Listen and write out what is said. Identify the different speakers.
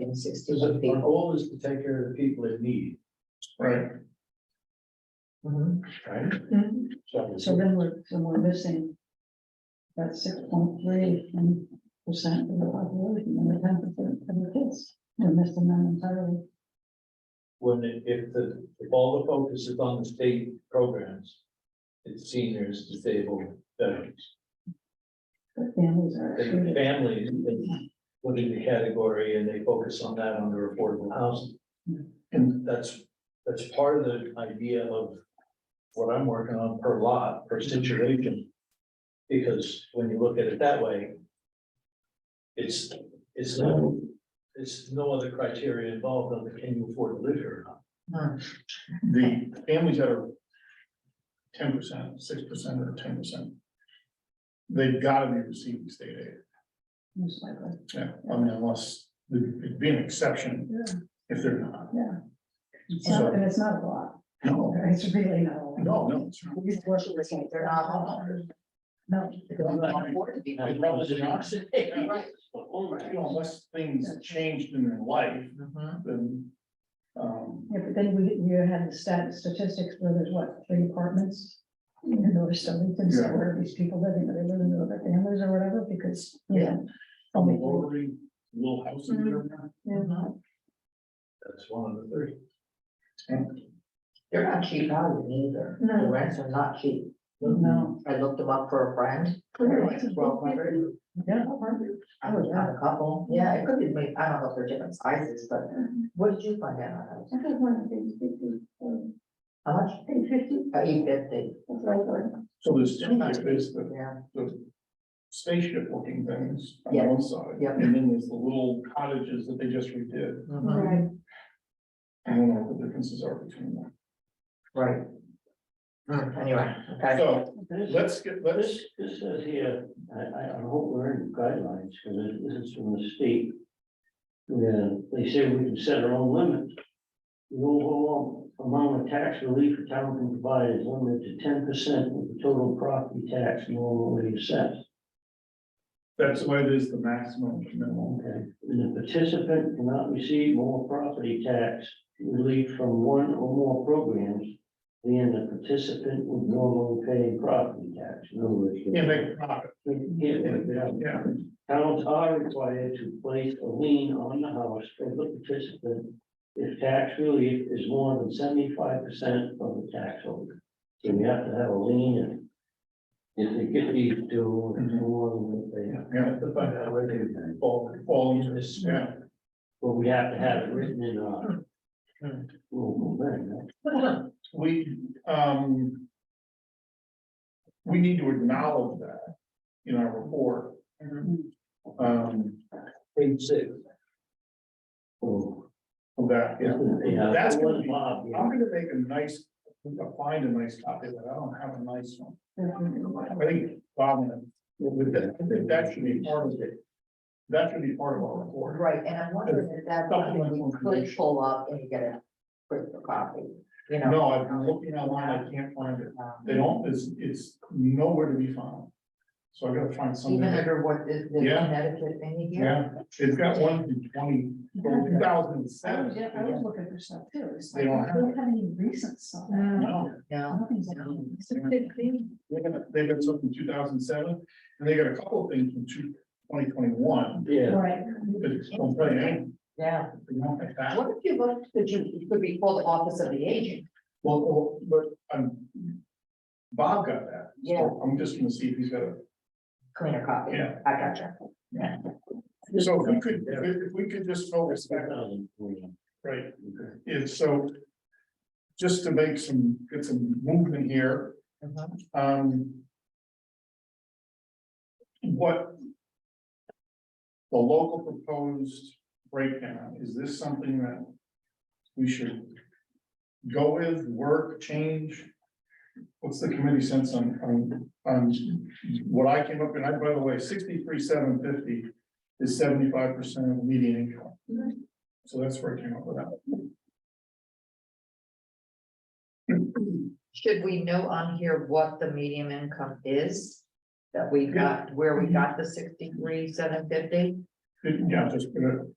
Speaker 1: and
Speaker 2: Because our
Speaker 1: sixty-one people.
Speaker 2: goal is to take care of the people in need,
Speaker 1: Right. Mhm.
Speaker 2: right? So
Speaker 1: Mm-hmm. So then we're, so we're missing. About six point three percent of the population and the ten percent of the kids. We're missing that entirely.
Speaker 2: when, it- if the, if all the focus is on the state programs, it's seniors, disabled, veterans.
Speaker 1: The families are
Speaker 2: And
Speaker 1: excluded.
Speaker 2: families, they put in the category and they focus on that under affordable housing. And that's, that's part of the idea of what I'm working on per lot, per situation. Because when you look at it that way, it's, it's no, it's no other criteria involved on the can you afford to live here or not.
Speaker 3: The families that are ten percent, six percent or ten percent. They've gotta be receiving state aid,
Speaker 1: Most likely.
Speaker 3: yeah, I mean, unless, it'd be an exception
Speaker 1: Yeah.
Speaker 3: if they're not.
Speaker 1: It's not, and it's not a lot.
Speaker 3: No,
Speaker 1: It's really not a lot.
Speaker 3: no, no. it's not.
Speaker 1: These worshipers think they're not homeowners. No.
Speaker 3: They can't afford
Speaker 1: to be.
Speaker 2: As long as you're not-
Speaker 3: You know, Unless things changed in their life, then, um,
Speaker 1: Yeah, but then we, you had the stat, statistics where there's what, three apartments? in North Stonington, so
Speaker 3: Yeah.
Speaker 1: where are these people living, are they living with their families or whatever, because, you know.
Speaker 3: on the
Speaker 1: only-
Speaker 3: lowering little houses that are not
Speaker 1: Yeah.
Speaker 2: That's one of the three.
Speaker 4: They're not cheap value either. The
Speaker 1: No.
Speaker 4: rents are not cheap.
Speaker 1: No. Oh,
Speaker 4: I looked them up for a friend. They're like twelve hundred.
Speaker 1: Yeah.
Speaker 4: I was on a couple. Yeah, it could be, made- I don't know if they're different sizes, but what did you find out on those?
Speaker 1: I got one, eight fifty, um,
Speaker 4: How much?
Speaker 1: eight fifty,
Speaker 4: Eight fifty.
Speaker 1: that's what I thought.
Speaker 3: So there's two, types. there's the
Speaker 4: Yeah,
Speaker 3: the spaceship looking things on
Speaker 4: Yeah,
Speaker 3: one side.
Speaker 4: yeah.
Speaker 3: And then there's the little cottages that they just redid.
Speaker 4: mhm,
Speaker 3: I don't know what the differences are between them.
Speaker 4: Mm-hmm. right. Hmm, Anyway, okay.
Speaker 3: So let's get, let's,
Speaker 5: This, this says here, I, I, I hope we're in guidelines, because this is from the state. Yeah, they say we can set our own limits. The overall amount of tax relief a town can provide is limited to ten percent of the total property tax normally assessed.
Speaker 3: that's why there's the maximum and minimum.
Speaker 5: Okay, and the participant cannot receive more property tax relief from one or more programs than the participant would normally pay property tax. In other words, they-
Speaker 3: Can't make a profit.
Speaker 5: they can't make it up.
Speaker 3: Yeah,
Speaker 5: Towns are required to place a lien on the house for the participant if tax relief is more than seventy-five percent of the tax holder. So you have to have a lien and if they get these due, it's more than what they,
Speaker 3: yeah, yeah.
Speaker 2: Have to Mm-hmm. find out where they fall.
Speaker 3: All of this, yeah.
Speaker 5: but we have to have it written in our
Speaker 3: Hmm.
Speaker 5: local thing, right?
Speaker 3: We, um. We need to acknowledge that in our report. Um,
Speaker 2: Page six.
Speaker 5: So,
Speaker 3: of that, yeah.
Speaker 5: yeah,
Speaker 3: Oh, That's
Speaker 5: it
Speaker 3: gonna
Speaker 5: was
Speaker 3: be-
Speaker 5: Bob, yeah.
Speaker 3: I'm gonna make a nice, I'll find a nice copy, but I don't have a nice one. I think Bob, and- I think that should be part of it. That should be part of our report.
Speaker 4: Right, and I'm wondering if that's something we could pull up and get a quick copy, you know?
Speaker 3: No, I've been looking online, I can't find it.
Speaker 4: um,
Speaker 3: They don't, it's, it's nowhere to be found. So I gotta find something.
Speaker 4: Even under what is the
Speaker 3: Yeah.
Speaker 4: Connecticut thing you get?
Speaker 3: Yeah, it's got one from twenty, from two
Speaker 1: I
Speaker 3: thousand and
Speaker 1: was, Oh, yeah, I was
Speaker 3: seven.
Speaker 1: looking for stuff too, it's like,
Speaker 3: They
Speaker 1: we
Speaker 3: don't have
Speaker 1: don't have any recent stuff.
Speaker 3: No,
Speaker 4: No.
Speaker 1: Nothing's happening. It's a big thing.
Speaker 3: they got, they got something from two thousand and seven, and they got a couple of things from two, twenty twenty-one,
Speaker 5: Yeah,
Speaker 1: Right.
Speaker 3: but it's don't tell you anything,
Speaker 4: Yeah,
Speaker 3: not like that.
Speaker 4: what if you looked, could you, it could be called the Office of the Agent?
Speaker 3: Well, well, but, um, Bob got that. so
Speaker 4: Yeah.
Speaker 3: I'm just gonna see if he's got a,
Speaker 4: cleaner copy.
Speaker 3: Yeah.
Speaker 4: I gotcha.
Speaker 3: so if we could, if if we could just focus back, right,
Speaker 5: Okay.
Speaker 3: is so. Just to make some, get some movement here,
Speaker 4: Mhm.
Speaker 3: um. What? The local proposed breakdown, is this something that we should go with, work, change? What's the committee sense on, on, on what I came up with, I, by the way, sixty-three, seven fifty is seventy-five percent of median income. So that's where I came up with that.
Speaker 4: Should we know on here what the medium income is? That we got, where we got the sixty-three, seven fifty?
Speaker 3: Yeah, just put it,